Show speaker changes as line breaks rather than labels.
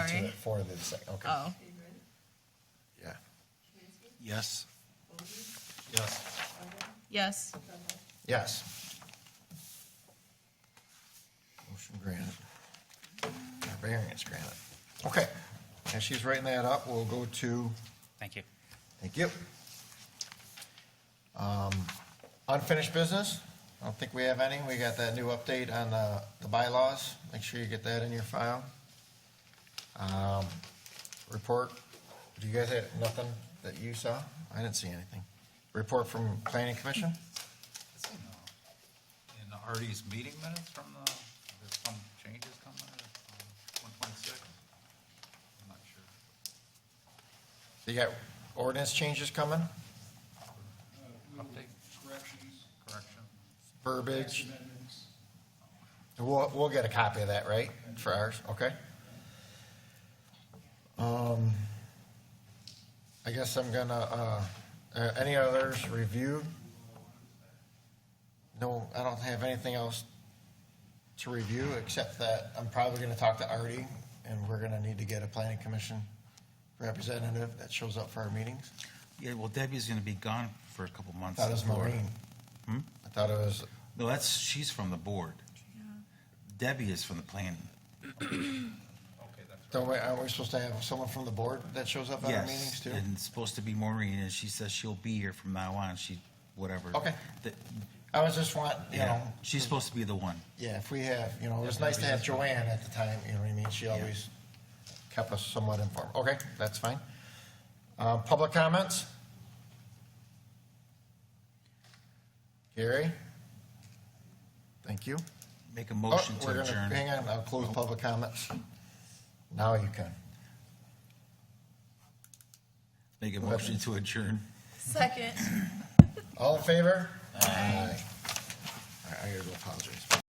four of the second, okay.
Oh,
Yeah.
Yes. Yes.
yes.
Yes. Motion granted. Or Variance granted. Okay, as she's writing that up, we'll go to,
Thank you.
thank you. Um, Unfinished business? I don't think we have any. We got that new update on the, the bylaws. Make sure you get that in your file. Um, Report, do you guys have nothing that you saw? I didn't see anything. Report from planning commission?
uh, In Artie's meeting minutes from the, there's some changes coming in uh, one twenty-six? I'm not sure.
You got ordinance changes coming,
Update,
Uh, corrections,
correction?
verbiage.
amendments.
We'll, we'll get a copy of that, right, for ours, okay? Um, I guess I'm gonna, uh, uh, any others reviewed? No, I don't have anything else to review, except that I'm probably gonna talk to Artie, and we're gonna need to get a planning commission representative that shows up for our meetings.
Yeah, well, Debbie's going to be gone for a couple months.
I thought it was
before-
Maureen.
Hmm?
I thought it was,
No, that's, she's from the board. Debbie is from the planning.
Okay, that's
Don't we, aren't we supposed to have someone from the board that shows up at our meetings
Yes,
too?
and it's supposed to be Maureen, and she says she'll be here from now on, she, whatever.
Okay.
That-
I was just want, you know,
Yeah, she's supposed to be the one.
yeah, if we have, you know, it was nice to have Joanne at the time, you know what I mean? She always kept us somewhat informed. Okay, that's fine. Uh, public comments? Gary? Thank you.
Make a
Oh,
motion
we're
to
gonna-
adjourn.
Hang on, I'll close public comments. Now you can.
Make a motion to adjourn.
Second.
All in favor? Aye. I I gotta go apologize.